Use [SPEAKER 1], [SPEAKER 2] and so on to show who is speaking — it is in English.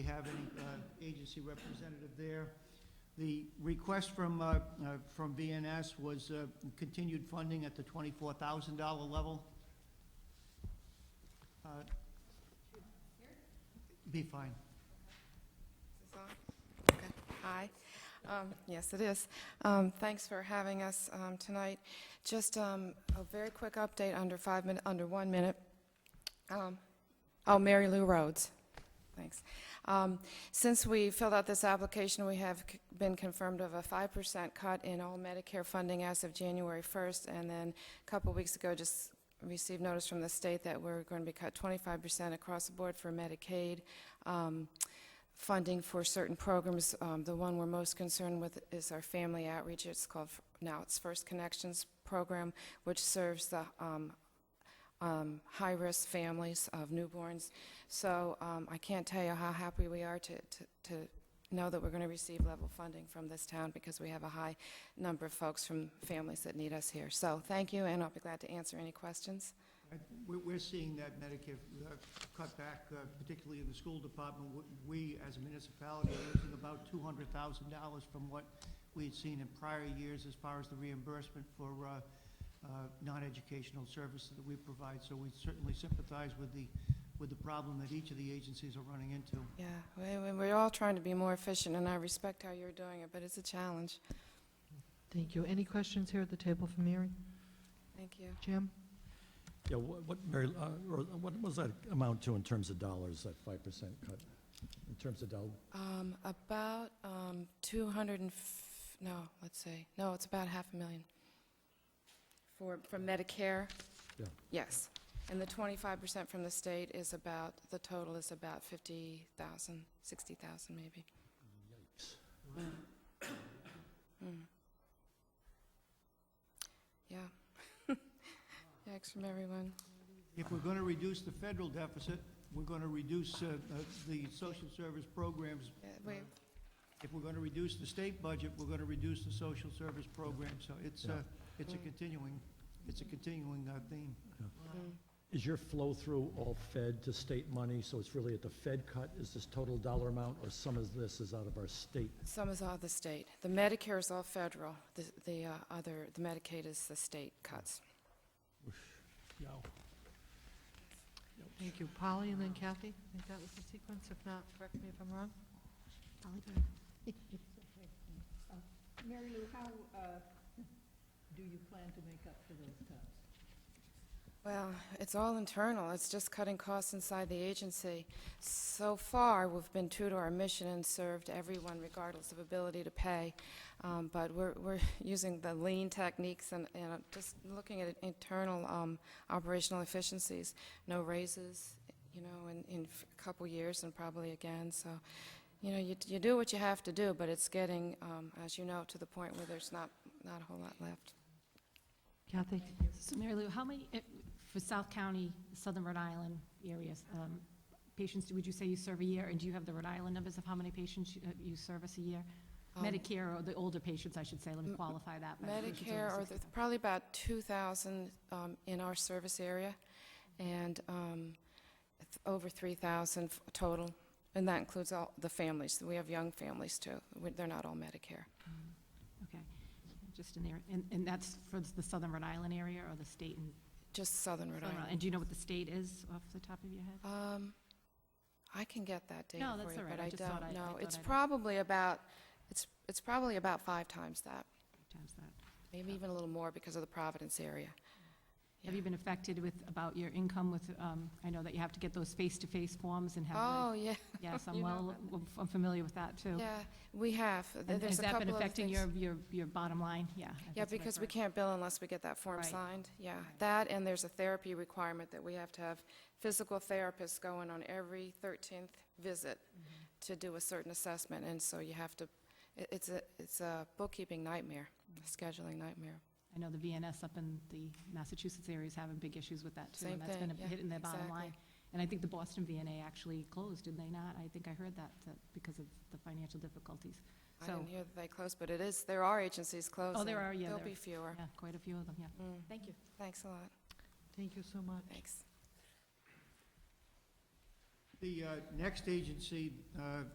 [SPEAKER 1] have any uh, agency representative there. The request from, uh, uh, from VNS was uh, continued funding at the twenty-four thousand dollar level. Uh, Be fine.
[SPEAKER 2] Is this on? Okay. Hi. Um, Yes, it is. Um, Thanks for having us um, tonight. Just um, a very quick update under five minute, under one minute. Um, Oh, Mary Lou Rhodes. Thanks. Um, Since we filled out this application, we have c- been confirmed of a 5% cut in all Medicare funding as of January 1st, and then a couple weeks ago, just received notice from the state that we're going to be cut 25% across the board for Medicaid. Um, funding for certain programs. Um, The one we're most concerned with is our family outreach. It's called, f- now it's First Connections Program, which serves the um, um, high-risk families of newborns. So um, I can't tell you how happy we are to, to- to know that we're going to receive level funding from this town because we have a high number of folks from families that need us here. So thank you, and I'll be glad to answer any questions.
[SPEAKER 1] I- We're, we're seeing that Medicare uh, cutback, uh, particularly in the school department. W- We, as a municipality, are losing about two hundred thousand dollars from what we had seen in prior years as far as the reimbursement for, uh, uh, non-educational services that we provide. So we certainly sympathize with the, with the problem that each of the agencies are running into.
[SPEAKER 2] Yeah, we- we- we're all trying to be more efficient, and I respect how you're doing it, but it's a challenge.
[SPEAKER 3] Thank you. Any questions here at the table for Mary?
[SPEAKER 2] Thank you.
[SPEAKER 3] Jim?
[SPEAKER 4] Yeah, wha- what, Mary, uh, or what was that amount to in terms of dollars, that five percent cut? In terms of dollar,
[SPEAKER 2] Um, about, um, two hundred and f- no, let's see, no, it's about half a million. For, from Medicare?
[SPEAKER 4] Yeah.
[SPEAKER 2] Yes, and the twenty-five percent from the state is about, the total is about fifty thousand, sixty thousand maybe.
[SPEAKER 4] yikes.
[SPEAKER 2] Mm. Yeah. Thanks from everyone.
[SPEAKER 1] If we're gonna reduce the federal deficit, we're gonna reduce, uh, uh, the social service programs
[SPEAKER 2] Yeah, Wait,
[SPEAKER 1] if we're going to reduce the state budget, we're going to reduce the social service program, so it's a,
[SPEAKER 4] Yeah.
[SPEAKER 1] it's a
[SPEAKER 2] Mm.
[SPEAKER 1] continuing, it's a continuing uh, theme.
[SPEAKER 2] mm.
[SPEAKER 4] Is your flow-through all Fed to state money, so it's really at the Fed cut, is this total dollar amount, or some of this is out of our state?
[SPEAKER 2] some is all the state. The Medicare is all federal, the, the, uh, other, the Medicaid is the state cuts.
[SPEAKER 4] Yeah.
[SPEAKER 3] Thank you. Polly and then Kathy? I think that was the sequence. If not, correct me if I'm wrong.
[SPEAKER 5] Mary Lou, how uh, do you plan to make up for those cuts?
[SPEAKER 2] Well, it's all internal. It's just cutting costs inside the agency. So far, we've been true to our mission and served everyone regardless of ability to pay. Um, But we're, we're using the lean techniques and, and just looking at internal um, operational efficiencies. No raises, you know, in, in a couple years and probably again. So, you know, you, you do what you have to do, but it's getting, um, as you know, to the point where there's not, not a whole lot left.
[SPEAKER 3] Kathy?
[SPEAKER 6] So Mary Lou, how many, eh, for South County, Southern Rhode Island areas, um, patients, would you say you serve a year? And do you have the Rhode Island numbers of how many patients you- uh, you service a year?
[SPEAKER 2] Um,
[SPEAKER 6] Medicare, or the older patients, I should say, let me
[SPEAKER 2] M-
[SPEAKER 6] qualify that. by the patients over
[SPEAKER 2] Medicare, or
[SPEAKER 6] 65.
[SPEAKER 2] probably about 2,000 um, in our service area, and um, th- over 3,000 f- total, and that includes all the families. We have young families, too. We- They're not all Medicare.
[SPEAKER 6] Okay, just in there, and, and that's for the Southern Rhode Island area or the state and?
[SPEAKER 2] Just Southern Rhode
[SPEAKER 6] Southern
[SPEAKER 2] Island.
[SPEAKER 6] And do you know what the state is off the top of your head?
[SPEAKER 2] Um, I can get that data
[SPEAKER 6] No,
[SPEAKER 2] for
[SPEAKER 6] that's
[SPEAKER 2] you,
[SPEAKER 6] all right.
[SPEAKER 2] but
[SPEAKER 6] I
[SPEAKER 2] I
[SPEAKER 6] just thought I-
[SPEAKER 2] don't
[SPEAKER 6] I
[SPEAKER 2] know.
[SPEAKER 6] thought
[SPEAKER 2] It's
[SPEAKER 6] I'd-
[SPEAKER 2] probably about, it's it's probably about five times that,
[SPEAKER 6] Times that.
[SPEAKER 2] maybe even a little more because of the Providence area.
[SPEAKER 6] Have you been affected with, about your income with, um, I know that you have to get those face-to-face forms and have,
[SPEAKER 2] Oh,
[SPEAKER 6] like-
[SPEAKER 2] yeah,
[SPEAKER 6] yes,
[SPEAKER 2] You
[SPEAKER 6] I'm
[SPEAKER 2] know
[SPEAKER 6] well, I'm familiar with that, too.
[SPEAKER 2] yeah, we have. Th-
[SPEAKER 6] And
[SPEAKER 2] There's
[SPEAKER 6] Has
[SPEAKER 2] a
[SPEAKER 6] that been
[SPEAKER 2] couple other
[SPEAKER 6] affecting
[SPEAKER 2] things.
[SPEAKER 6] your, your, your bottom line? Yeah. I think
[SPEAKER 2] Yeah,
[SPEAKER 6] that's what I've
[SPEAKER 2] because we
[SPEAKER 6] heard.
[SPEAKER 2] can't bill unless we get that form
[SPEAKER 6] Right.
[SPEAKER 2] signed, yeah.
[SPEAKER 6] Right.
[SPEAKER 2] That, and there's a therapy requirement that we have to have physical therapists going on every 13th visit
[SPEAKER 6] Mm-hmm.
[SPEAKER 2] to do a certain assessment, and so you have to, it- it's a, it's a bookkeeping nightmare,
[SPEAKER 6] Mm-hmm.
[SPEAKER 2] a scheduling nightmare.
[SPEAKER 6] I know the VNS up in the Massachusetts area is having big issues with that too.
[SPEAKER 2] Same
[SPEAKER 6] and that's
[SPEAKER 2] thing,
[SPEAKER 6] been
[SPEAKER 2] yeah,
[SPEAKER 6] a- hitting their bottom
[SPEAKER 2] exactly.
[SPEAKER 6] line. And I think the Boston VNA actually closed, did they not? I think I heard that, that because of the financial difficulties.
[SPEAKER 2] I
[SPEAKER 6] So-
[SPEAKER 2] didn't hear that they closed, but it is, there are agencies closing.
[SPEAKER 6] are, yeah,
[SPEAKER 2] There'll
[SPEAKER 6] there-
[SPEAKER 2] be fewer.
[SPEAKER 6] Yeah, quite a few of them, yeah.
[SPEAKER 2] Mm,
[SPEAKER 6] Thank you.
[SPEAKER 2] Thanks a lot,
[SPEAKER 3] Thank you so much.
[SPEAKER 2] thanks.
[SPEAKER 1] The uh, next agency uh,